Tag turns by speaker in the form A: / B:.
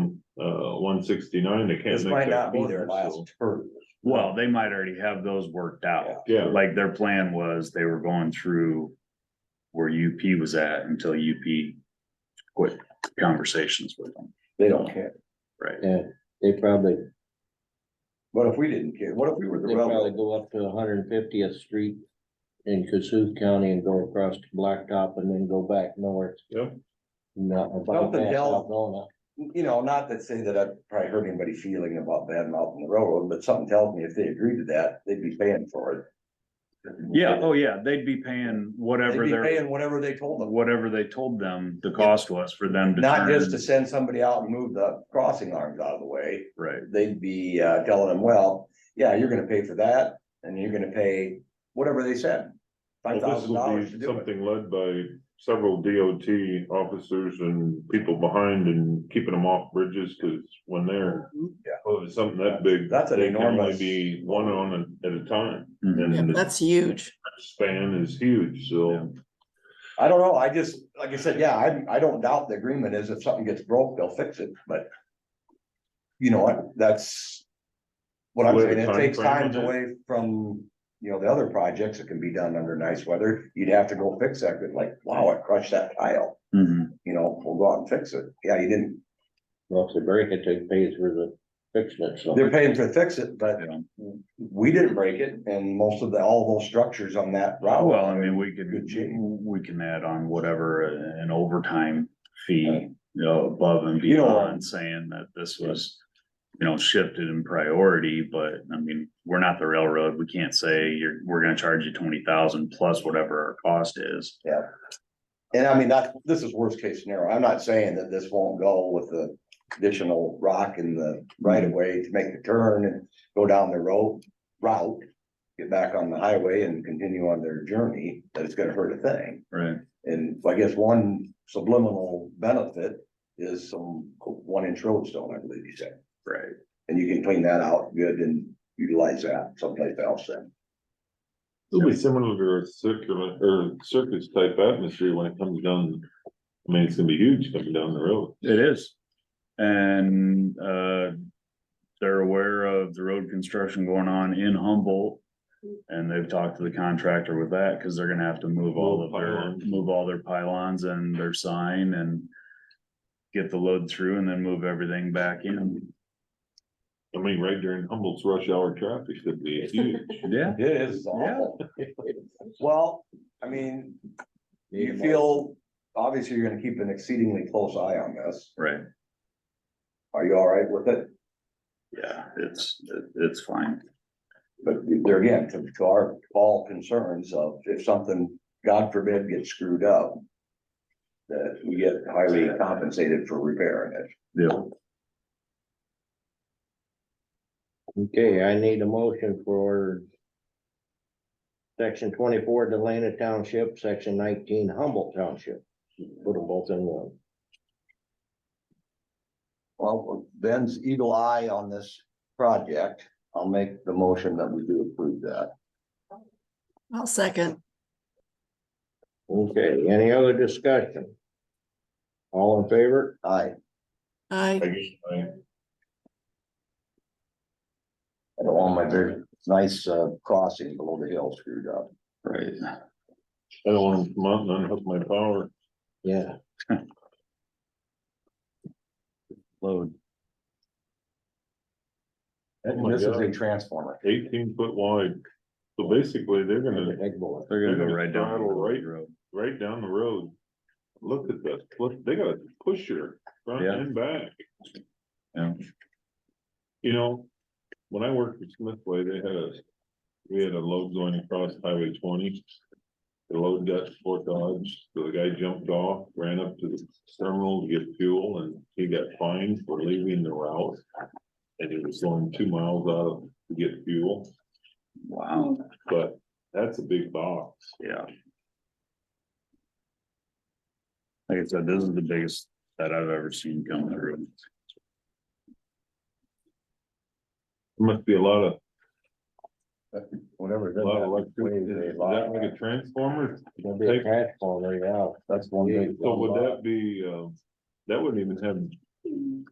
A: at uh, one sixty-nine, they can't
B: This
A: make
B: might
A: that
B: not be
A: work.
B: their
A: so-
B: last turn.
C: Well, they might already have those worked out.
A: Yeah,
C: Like their plan was they were going through where UP was at until UP quit conversations with them.
B: They don't care.
D: Yeah, they probably,
B: What if we didn't care? What if we were the
D: they probably
B: railroad?
D: go up to hundred and fiftieth street in Cassuth County and go across to Blacktop and then go back north.
A: Yep.
D: Not about
B: Something
D: that,
B: tells-
D: Algona.
B: You know, not to say that I've probably hurt anybody feeling about bad mouthing the railroad, but something tells me if they agreed to that, they'd be paying for it.
C: Yeah, oh yeah, they'd be paying
B: They'd
C: whatever
B: be
C: their,
B: paying whatever they told them,
C: whatever they told them the cost was for them to.
B: not just to
C: turn-
B: send somebody out and move the crossing arms out of the way.
C: Right,
B: They'd be uh, telling them, well, yeah, you're gonna pay for that and you're gonna pay whatever they said. Five
A: well, this
B: thousand
A: will
B: dollars to
A: be
B: do it.
A: something led by several DOT officers and people behind and keeping them off bridges, cause when they're.
E: Mm-hmm.
B: Yeah.
A: Oh, it's something that big.
B: That's an
A: they can only
B: enormous-
A: Be one on at a time,
C: Mhm.
E: Yeah,
A: and the
E: That's huge.
A: span is huge, so.
B: I don't know, I just, like I said, yeah, I, I don't doubt the agreement is if something gets broke, they'll fix it, but. You know what, that's. What I'm
A: What
B: saying, it
A: time
B: takes
A: frame
B: times
A: is it?
B: away from, you know, the other projects that can be done under nice weather, you'd have to go fix that, but like, wow, I crushed that tile.
C: Mhm.
B: You know, we'll go out and fix it, yeah, you didn't,
D: Well, if they break it, they pay for the fixing it, so.
B: they're paying to fix it, but
C: Yeah.
B: we didn't break it, and most of the, all those structures on that route.
C: Well, I mean, we
B: Good
C: could,
B: shape.
C: we can add on whatever uh, an overtime fee, you know, above and
B: Uh, You know-
C: beyond saying that this was. You know, shifted in priority, but I mean, we're not the railroad. We can't say you're, we're gonna charge you twenty thousand plus whatever our cost is.
B: And I mean, that, this is worst case scenario. I'm not saying that this won't go with the additional rock in the right of way to make the turn and go down the road route. Get back on the highway and continue on their journey, that it's gonna hurt a thing.
C: Right.
B: And so I guess one subliminal benefit is some one inch roadstone, I believe you said.
C: Right.
B: And you can clean that out good and utilize that someplace else then.
A: It'll be similar to a circular, or circus type atmosphere when it comes down. I mean, it's gonna be huge coming down the road.
C: It is. And, uh, they're aware of the road construction going on in Humboldt. And they've talked to the contractor with that, cause they're gonna have to move all of their,
A: Pylons.
C: move all their pylons and their sign and. Get the load through and then move everything back in.
A: I mean, right during Humboldt's rush hour traffic, it'd be huge.
C: Yeah.
B: It is awful. Well, I mean, You feel, obviously, you're gonna keep an exceedingly close eye on this.
C: Right,
B: Are you all right with it?
C: yeah, it's, it- it's fine.
B: But there again, to, to our all concerns of if something, God forbid, gets screwed up. That we get highly compensated for repairing it.
C: Yeah.
D: Okay, I need a motion for section twenty-four Delana Township, section nineteen Humboldt Township. Put them both in one.
B: Well, with Ben's eagle eye on this project, I'll make the motion that we do approve that.
E: I'll second.
D: Okay, any other discussion? All in favor?
B: I,
A: I
E: I,
A: guess I-
B: I don't want my very nice, uh, crossing below the hill screwed up.
C: Right.
A: I don't want to come out and unhook my power.
D: Yeah.
C: Load.
A: Oh my
B: This is a
A: God.
B: transformer.
A: Eighteen foot wide. So basically, they're gonna
D: Big boy.
C: They're gonna go
A: They're
C: right down.
A: gonna
C: the
A: throttle right-
C: road.
A: right down the road. Look at this, look, they got a pusher front
C: Yeah.
A: and back.
C: Yeah.
A: You know, when I worked at Smithway, they had a, we had a load going across Highway twenty. The load got four dodge, so the guy jumped off, ran up to the terminal to get fuel and he got fined for leaving the route. And he was going two miles out of to get fuel,
C: Wow,
A: but that's a big box.
C: Yeah. Like I said, this is the biggest that I've ever seen come through.
A: Must be a lot of
B: Whatever.
A: A lot of electric,
B: Way
A: is
B: they
A: is that like
B: lie.
A: a transformer?
D: Gonna be a transformer, yeah.
B: That's one
D: Yeah,
B: big.
A: uh, So would that be, um, that wouldn't even have